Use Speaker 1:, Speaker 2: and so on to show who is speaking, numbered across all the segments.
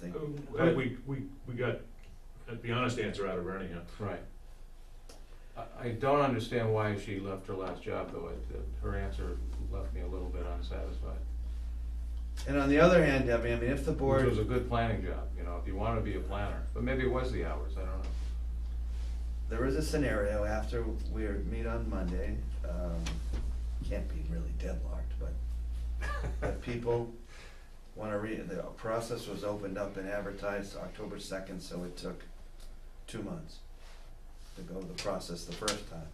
Speaker 1: They-
Speaker 2: Oh,
Speaker 3: But Uh, we, we, we got uh, the honest answer out of her anyhow.
Speaker 2: Right. I, I don't understand why she left her last job, though. It- it- Her answer left me a little bit unsatisfied.
Speaker 1: And on the other hand, Debbie, I mean, if the
Speaker 2: Which was a
Speaker 1: board,
Speaker 2: good planning job, you know, if you wanna be a planner, but maybe it was the hours, I don't know.
Speaker 1: there is a scenario after we are- meet on Monday, um, can't be really deadlocked, but if people wanna re, the process was opened up and advertised October second, so it took two months to go the process the first time.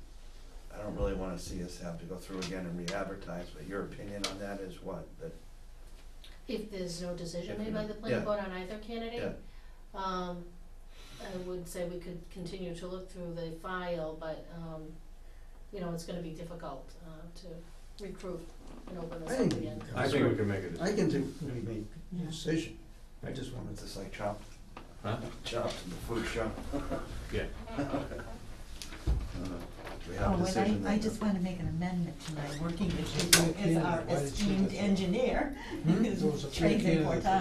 Speaker 1: I don't really wanna see us have to go through again and re-advertise, but your opinion on that is what? That,
Speaker 4: If there's no decision made by the
Speaker 1: Yeah.
Speaker 4: planning board on either
Speaker 1: yeah,
Speaker 4: candidate, um, I would say we could continue to look through the file, but, um, you know, it's gonna be difficult, uh, to recruit and open
Speaker 5: I
Speaker 4: this up
Speaker 5: think,
Speaker 4: again.
Speaker 2: I think we can make a
Speaker 5: I
Speaker 2: decision.
Speaker 5: can think we make a decision. I just wanted
Speaker 1: it's
Speaker 5: to,
Speaker 1: just like chopped,
Speaker 2: Huh?
Speaker 1: chopped in the food shop.
Speaker 2: Yeah.
Speaker 1: We
Speaker 6: Oh,
Speaker 1: have a decision.
Speaker 6: and I, I
Speaker 1: that-
Speaker 6: just wanna make an amendment to my working issue
Speaker 5: Yeah,
Speaker 6: as
Speaker 5: yeah,
Speaker 6: our
Speaker 5: why did she
Speaker 6: esteemed
Speaker 5: do that?
Speaker 6: engineer,
Speaker 5: Hmm? there was
Speaker 6: who's
Speaker 5: a few
Speaker 6: trained in
Speaker 5: candidates that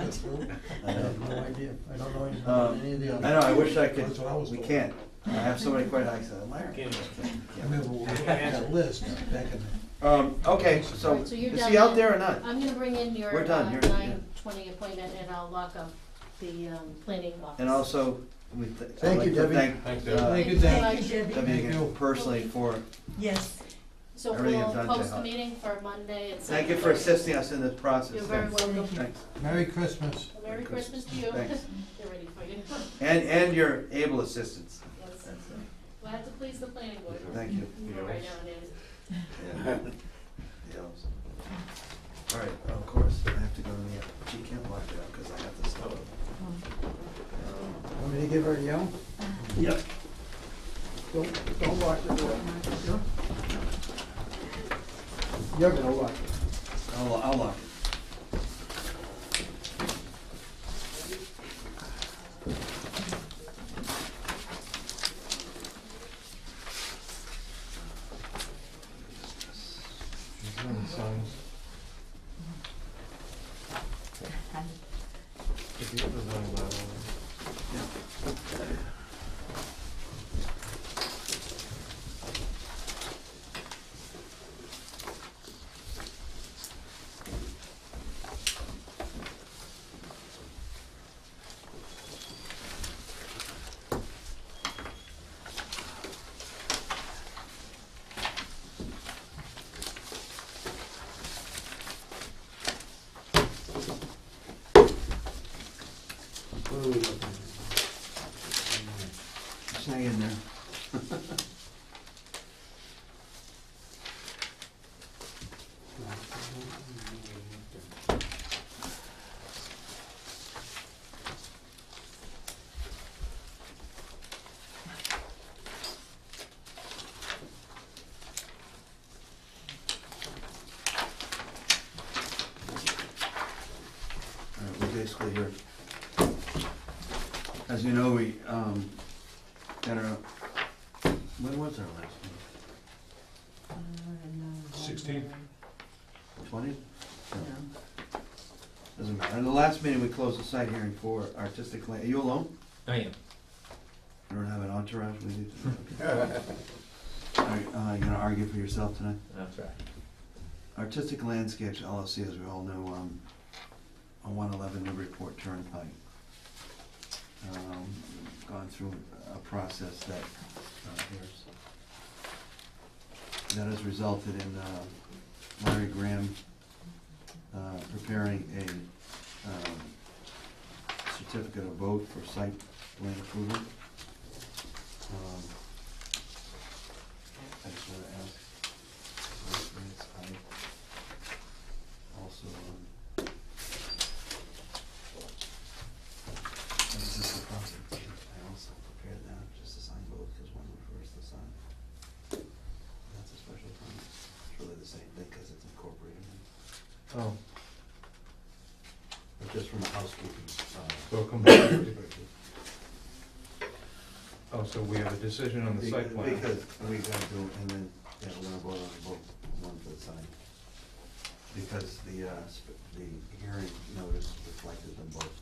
Speaker 5: got through.
Speaker 6: portage.
Speaker 5: I
Speaker 1: I know.
Speaker 5: have no idea. I don't know anything about
Speaker 1: Um,
Speaker 5: any of the others.
Speaker 1: I know, I wish I could,
Speaker 5: That's what I was
Speaker 1: we
Speaker 5: told.
Speaker 1: can't, I have so many questions, I'm like,
Speaker 3: Can't.
Speaker 5: I remember we had that list back in the,
Speaker 1: um, okay, so,
Speaker 4: Right,
Speaker 1: is
Speaker 4: so you're
Speaker 1: he
Speaker 4: done
Speaker 1: out
Speaker 4: then.
Speaker 1: there or not?
Speaker 4: I'm gonna bring in your,
Speaker 1: We're done,
Speaker 4: uh,
Speaker 1: you're- yeah.
Speaker 4: nine twenty appointment and I'll lock up the, um, planning office.
Speaker 1: And uh, also, we, th- I'd
Speaker 5: Thank
Speaker 1: like
Speaker 5: you,
Speaker 1: to
Speaker 5: Debbie.
Speaker 1: thank
Speaker 2: Thanks,
Speaker 4: Yeah,
Speaker 2: Deb.
Speaker 5: Thank you,
Speaker 4: so
Speaker 6: Thank
Speaker 4: much.
Speaker 6: you, Debbie.
Speaker 1: Debbie
Speaker 5: Thank
Speaker 1: again
Speaker 5: you.
Speaker 1: personally for,
Speaker 6: Yes,
Speaker 4: So
Speaker 1: Everything
Speaker 4: we'll
Speaker 1: you've done to
Speaker 4: post the
Speaker 1: help.
Speaker 4: meeting for Monday at seven.
Speaker 1: thank you for assisting us in this process,
Speaker 4: You're very
Speaker 1: thanks,
Speaker 4: welcome.
Speaker 1: thanks.
Speaker 5: Merry Christmas.
Speaker 4: Merry Christmas to you.
Speaker 1: Thanks.
Speaker 4: They're ready for you.
Speaker 1: And, and your able assistance,
Speaker 4: Yes. We'll have to please the planning board.
Speaker 1: thank you.
Speaker 4: You know, right nowadays.
Speaker 1: Yeah. Yeah. All right, of course, I have to go to the, she can't lock it up, cause I have to stop it. Um,
Speaker 5: Want me to give her a yell?
Speaker 1: Yep.
Speaker 5: Don't, don't lock the door. You're gonna lock it.
Speaker 1: I'll, I'll lock it.
Speaker 2: Signs. If you have the zoning bylaw,
Speaker 5: What are we looking at?
Speaker 1: Just hang in there. All right, we're basically here. As you know, we, um, got our, when was our last meeting?
Speaker 3: Sixteen.
Speaker 1: Twenty?
Speaker 6: no,
Speaker 1: Doesn't matter. The last meeting, we closed the site hearing for artistic land. Are you alone?
Speaker 3: I am.
Speaker 1: You don't have an entourage with you? Okay. All right, uh, you gonna argue for yourself tonight?
Speaker 3: That's right.
Speaker 1: Artistic Landscapes LLC, as we all know, um, on one eleven Newburyport Turnpike. Um, gone through a process that, uh, here's, that has resulted in, uh, Larry Graham, uh, preparing a, um, certificate of vote for site plan approval. Um, I just wanna ask, I also, um. This is the process, I also prepared that, just to sign both, because one refers to sign. That's a special permit, it's really the same thing, because it's incorporated in.
Speaker 2: oh,
Speaker 1: But just from a housekeeping, uh.
Speaker 2: so come back. Oh, so we have a decision on the site plan.
Speaker 1: Because we gotta do, and then, yeah, we're gonna vote on both, one for the sign. Because the, uh, sp- the hearing notice reflected them both.